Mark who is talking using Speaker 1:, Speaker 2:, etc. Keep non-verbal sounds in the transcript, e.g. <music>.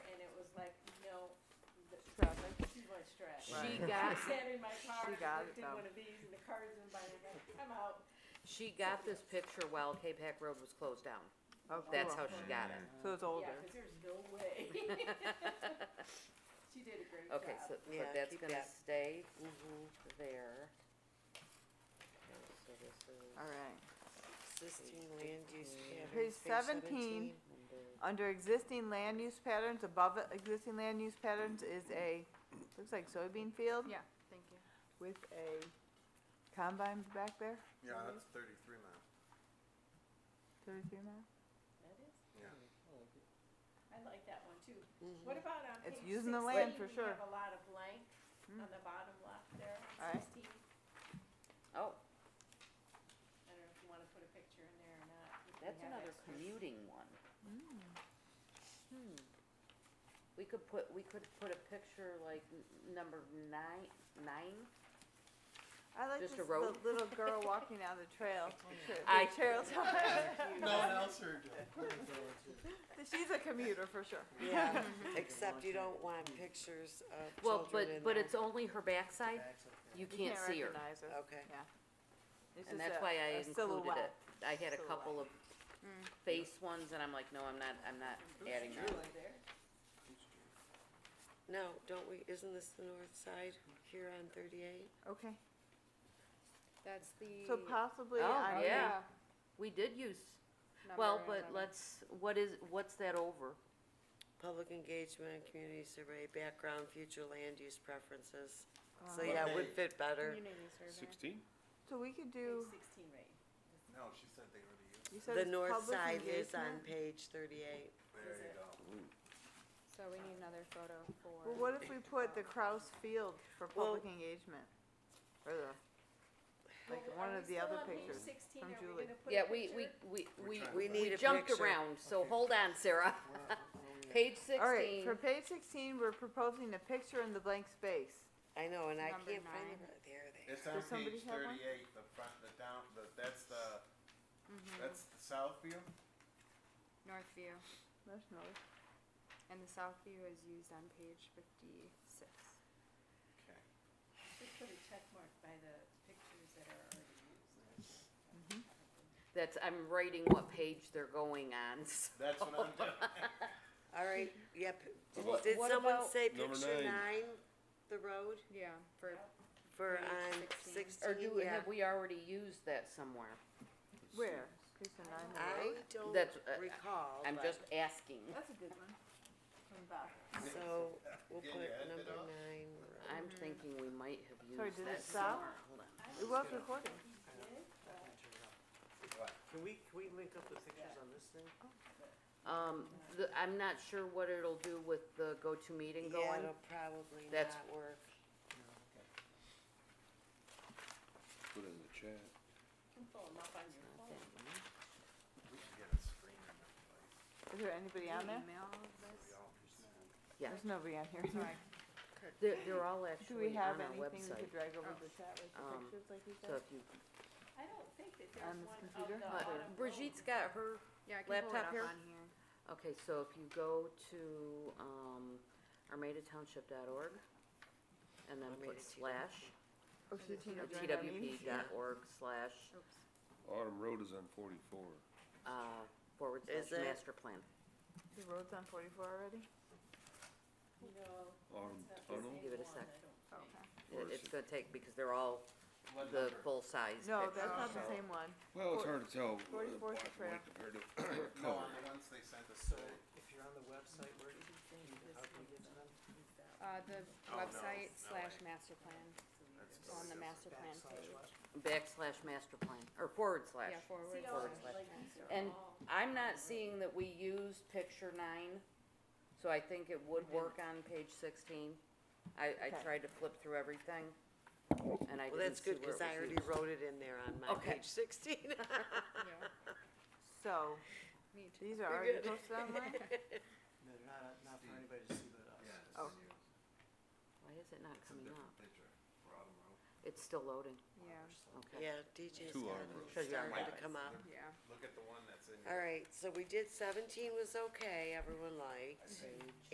Speaker 1: <laughs> She
Speaker 2: Right.
Speaker 1: got,
Speaker 3: I sat in my car,
Speaker 1: She got
Speaker 3: looked
Speaker 1: it,
Speaker 3: in
Speaker 1: though.
Speaker 3: one of these, and the car's in my, I'm
Speaker 1: <laughs>
Speaker 3: like, I'm out.
Speaker 4: She got this picture while K-Pac Road was closed down.
Speaker 1: oh,
Speaker 4: That's how
Speaker 1: cool.
Speaker 4: she got <laughs> it.
Speaker 1: So it's older.
Speaker 3: Yeah, 'cause there's no
Speaker 1: <laughs>
Speaker 3: way. <laughs> She did a great job.
Speaker 4: Okay, so, so
Speaker 2: Yeah,
Speaker 4: that's
Speaker 2: keep
Speaker 4: gonna
Speaker 2: that.
Speaker 4: stay Mm-hmm. there. Okay, so this is
Speaker 1: All right.
Speaker 2: Existing land use patterns.
Speaker 1: Page 17.
Speaker 4: number-
Speaker 1: Under existing land use patterns, above it, existing land use patterns is a, looks like soybean field
Speaker 5: Yeah, thank you.
Speaker 1: with a combine back there,
Speaker 6: Yeah, that's thirty-three mile.
Speaker 1: thirty-three mile.
Speaker 3: That is, I
Speaker 6: Yeah.
Speaker 3: like that one too.
Speaker 2: Mhm.
Speaker 3: What about on page
Speaker 1: Mm-hmm. It's
Speaker 3: sixteen?
Speaker 1: using the land for
Speaker 3: We
Speaker 1: sure.
Speaker 3: have a lot of blank
Speaker 1: Hmm.
Speaker 3: on the bottom left there,
Speaker 1: All right.
Speaker 3: sixteen.
Speaker 4: Oh,
Speaker 3: I don't know if you wanna put a picture in there or not. if we
Speaker 4: that's
Speaker 3: have
Speaker 4: another
Speaker 3: extras.
Speaker 4: commuting one. Hmm. We could put, we could put a picture like n- number nine, nine?
Speaker 1: I like
Speaker 4: Just
Speaker 1: this
Speaker 4: a road?
Speaker 1: little, little girl walking down the trail.
Speaker 4: <laughs>
Speaker 1: The <laughs>
Speaker 4: I-
Speaker 1: trail's
Speaker 6: No one else heard
Speaker 1: She's a commuter for sure.
Speaker 2: Yeah, except you don't want pictures of
Speaker 4: Well,
Speaker 2: children
Speaker 4: but,
Speaker 2: in
Speaker 4: but
Speaker 2: there.
Speaker 4: it's only her backside, you can't see her. Oh,
Speaker 1: recognize her.
Speaker 2: Okay.
Speaker 1: It's
Speaker 4: And
Speaker 1: just
Speaker 4: that's
Speaker 1: a-
Speaker 4: why I
Speaker 1: a
Speaker 4: included it.
Speaker 1: silhouette.
Speaker 4: I had a
Speaker 1: Silhouette.
Speaker 4: couple of
Speaker 1: Mm.
Speaker 4: face ones and I'm like, no, I'm not, I'm not adding that.
Speaker 3: There.
Speaker 2: No, don't we, isn't this the north side here on thirty-eight?
Speaker 1: Okay,
Speaker 5: That's the.
Speaker 1: so possibly
Speaker 4: Oh,
Speaker 1: on
Speaker 4: yeah. We did use, well, but let's, what is, what's that over?
Speaker 2: Public engagement, community survey, background, future land use preferences. So
Speaker 1: Um,
Speaker 2: yeah, it would
Speaker 6: Hey.
Speaker 2: fit better.
Speaker 5: Community survey.
Speaker 7: Sixteen?
Speaker 1: So we could do,
Speaker 3: Page sixteen, right.
Speaker 6: No, she said they were to use.
Speaker 1: you said
Speaker 2: The
Speaker 1: it's
Speaker 2: north
Speaker 1: public
Speaker 2: side is on
Speaker 1: engagement?
Speaker 2: page thirty-eight.
Speaker 6: There you go.
Speaker 5: So we need another photo for.
Speaker 1: Well, what if we put the Kraus Field for
Speaker 2: Well-
Speaker 1: public engagement? Or the, like
Speaker 3: Well,
Speaker 1: one
Speaker 3: are
Speaker 1: of
Speaker 3: we
Speaker 1: the other
Speaker 3: still on page
Speaker 1: pictures.
Speaker 3: 16? Are
Speaker 1: from
Speaker 3: we
Speaker 1: Julie.
Speaker 3: gonna put a
Speaker 4: Yeah, we, we,
Speaker 3: picture?
Speaker 4: we,
Speaker 6: We're
Speaker 4: we,
Speaker 6: trying
Speaker 2: We
Speaker 6: to
Speaker 2: need
Speaker 4: we
Speaker 2: a
Speaker 4: jumped
Speaker 2: picture.
Speaker 4: around, so hold on, Sarah. <laughs> Page
Speaker 1: Alright,
Speaker 4: sixteen,
Speaker 1: for page sixteen, we're proposing a picture in the blank space.
Speaker 2: I know, and I
Speaker 5: Number
Speaker 2: can't find
Speaker 5: nine.
Speaker 2: it. There they are.
Speaker 6: It's on
Speaker 1: Does somebody
Speaker 6: page
Speaker 1: have one?
Speaker 6: thirty-eight, the front, the down, the, that's the, that's the south view?
Speaker 5: North view,
Speaker 1: That's nice.
Speaker 5: and the south view is used on page fifty-six.
Speaker 6: Okay.
Speaker 3: Just put a check mark by the pictures that are already used.
Speaker 4: that's, I'm writing what page they're going on, <laughs> so-
Speaker 6: That's what I'm doing.
Speaker 2: All right, yep.
Speaker 7: What-
Speaker 2: Did
Speaker 4: what
Speaker 2: someone
Speaker 4: about-
Speaker 2: say
Speaker 7: Number
Speaker 2: picture
Speaker 7: nine.
Speaker 2: nine, the road
Speaker 5: Yeah, for,
Speaker 2: for
Speaker 5: Page
Speaker 2: on
Speaker 5: 16.
Speaker 4: or
Speaker 2: sixteen?
Speaker 4: do,
Speaker 2: Yeah.
Speaker 4: have we already used that somewhere?
Speaker 1: Where? Page nine, the
Speaker 2: I
Speaker 1: road?
Speaker 2: don't
Speaker 4: That's, uh,
Speaker 2: recall,
Speaker 4: I'm
Speaker 2: but-
Speaker 4: just asking,
Speaker 1: That's a good one.
Speaker 3: From Bob.
Speaker 2: so
Speaker 6: <laughs>
Speaker 2: we'll
Speaker 6: Yeah,
Speaker 2: put
Speaker 6: you add that
Speaker 2: number
Speaker 6: up.
Speaker 2: nine. Mm-hmm.
Speaker 4: I'm thinking we might have
Speaker 1: Sorry,
Speaker 4: used
Speaker 1: did
Speaker 4: that
Speaker 1: it stop?
Speaker 4: somewhere, hold on.
Speaker 1: It was recording.
Speaker 6: What?
Speaker 8: Can we, can we link up the pictures on this thing?
Speaker 4: Um, the, I'm not sure what it'll do with the go-to meeting
Speaker 2: Yeah,
Speaker 4: going.
Speaker 2: it'll probably
Speaker 4: That's-
Speaker 2: not work.
Speaker 7: Put it in the chat.
Speaker 3: You can pull 'em up on your phone.
Speaker 6: We should get a screen in that place.
Speaker 1: Is there anybody on there?
Speaker 5: email
Speaker 6: We
Speaker 5: this,
Speaker 6: all can see.
Speaker 4: Yeah.
Speaker 1: There's nobody on here. <laughs>
Speaker 5: sorry,
Speaker 4: They're, they're all
Speaker 1: Do we
Speaker 4: actually
Speaker 1: have
Speaker 4: on our
Speaker 1: anything we
Speaker 4: website,
Speaker 1: could drag over
Speaker 5: Oh.
Speaker 1: the chat with the
Speaker 4: Um,
Speaker 1: pictures like you
Speaker 4: so
Speaker 1: said?
Speaker 4: if you,
Speaker 3: I don't think that
Speaker 1: On
Speaker 3: there's
Speaker 1: this
Speaker 3: one of
Speaker 1: computer?
Speaker 3: the
Speaker 1: Uh,
Speaker 4: but
Speaker 3: autumn
Speaker 4: Brigitte's
Speaker 3: roads.
Speaker 4: got her,
Speaker 5: yeah, I can pull it
Speaker 4: Laptop
Speaker 5: up
Speaker 4: here?
Speaker 5: on here.
Speaker 4: okay, so if you go to, um, armatatownship.org and then put slash,
Speaker 1: Oh, she's
Speaker 5: Is it
Speaker 1: in the
Speaker 4: uh,
Speaker 1: joint meeting?
Speaker 4: twp dot org slash,
Speaker 5: Oops,
Speaker 7: Autumn Road is on forty-four.
Speaker 4: uh, forward
Speaker 2: Is
Speaker 4: slash
Speaker 2: it?
Speaker 4: master plan.
Speaker 1: The road's on forty-four already?
Speaker 3: No,
Speaker 7: Autumn
Speaker 3: it's not the
Speaker 7: Tunnel?
Speaker 3: same
Speaker 4: Um, Give it a
Speaker 3: one,
Speaker 4: sec.
Speaker 3: I don't
Speaker 5: Oh,
Speaker 3: think.
Speaker 1: Okay.
Speaker 7: Or
Speaker 4: It,
Speaker 7: is
Speaker 4: it's
Speaker 7: it-
Speaker 4: gonna take, because they're all
Speaker 6: What
Speaker 4: the
Speaker 6: number?
Speaker 4: full-size
Speaker 1: No,
Speaker 4: picture.
Speaker 1: that's not the
Speaker 6: So-
Speaker 1: same one.
Speaker 7: Well, it's
Speaker 1: Four-
Speaker 7: hard to tell. uh,
Speaker 1: 44 is the
Speaker 7: black and white Compared <coughs> to
Speaker 6: No, on
Speaker 7: color.
Speaker 6: the ones they sent us
Speaker 8: So
Speaker 6: today.
Speaker 8: if you're on the website, where, do you- how can we get to them?
Speaker 5: uh,
Speaker 4: Oh,
Speaker 5: the
Speaker 6: no,
Speaker 5: website
Speaker 6: no
Speaker 5: slash
Speaker 6: way.
Speaker 5: master plan,
Speaker 6: That's
Speaker 5: so on the
Speaker 6: probably
Speaker 5: master plan
Speaker 8: Backslash
Speaker 5: page,
Speaker 8: what?
Speaker 4: Backslash master plan, or forward slash.
Speaker 5: yeah, forward.
Speaker 3: See, all,
Speaker 4: Forward slash.
Speaker 5: slash
Speaker 3: like, these
Speaker 5: master.
Speaker 3: are
Speaker 4: And
Speaker 3: all-
Speaker 4: I'm not seeing that we used picture nine, so I think it would work on page sixteen. I, I
Speaker 1: Okay.
Speaker 4: tried to flip through everything, and I
Speaker 2: Well,
Speaker 4: didn't
Speaker 2: that's
Speaker 4: see
Speaker 2: good,
Speaker 4: where it
Speaker 2: cause I
Speaker 4: was
Speaker 2: already
Speaker 4: used.
Speaker 2: wrote it in there on my
Speaker 4: Okay.
Speaker 2: page
Speaker 4: <laughs>
Speaker 2: sixteen.
Speaker 5: Yeah,
Speaker 1: So,
Speaker 5: me too.
Speaker 1: these are already posted online?
Speaker 8: No, they're not, not for anybody to see but us.
Speaker 6: Yeah, it's
Speaker 1: Oh.
Speaker 6: a new-
Speaker 4: Why is it not
Speaker 6: It's a
Speaker 4: coming
Speaker 6: different
Speaker 4: up?
Speaker 6: picture for Autumn Road.
Speaker 4: It's still loading,
Speaker 5: <laughs> Yeah,
Speaker 4: okay.
Speaker 2: Yeah, DJ's
Speaker 7: Two
Speaker 2: got
Speaker 7: Autumn Roads.
Speaker 2: it
Speaker 4: Shows you on
Speaker 2: starting
Speaker 4: my-
Speaker 2: to come up.
Speaker 5: yeah.
Speaker 6: Look at the one that's in. your-
Speaker 2: All right, so we did seventeen was okay, everyone liked.
Speaker 4: Page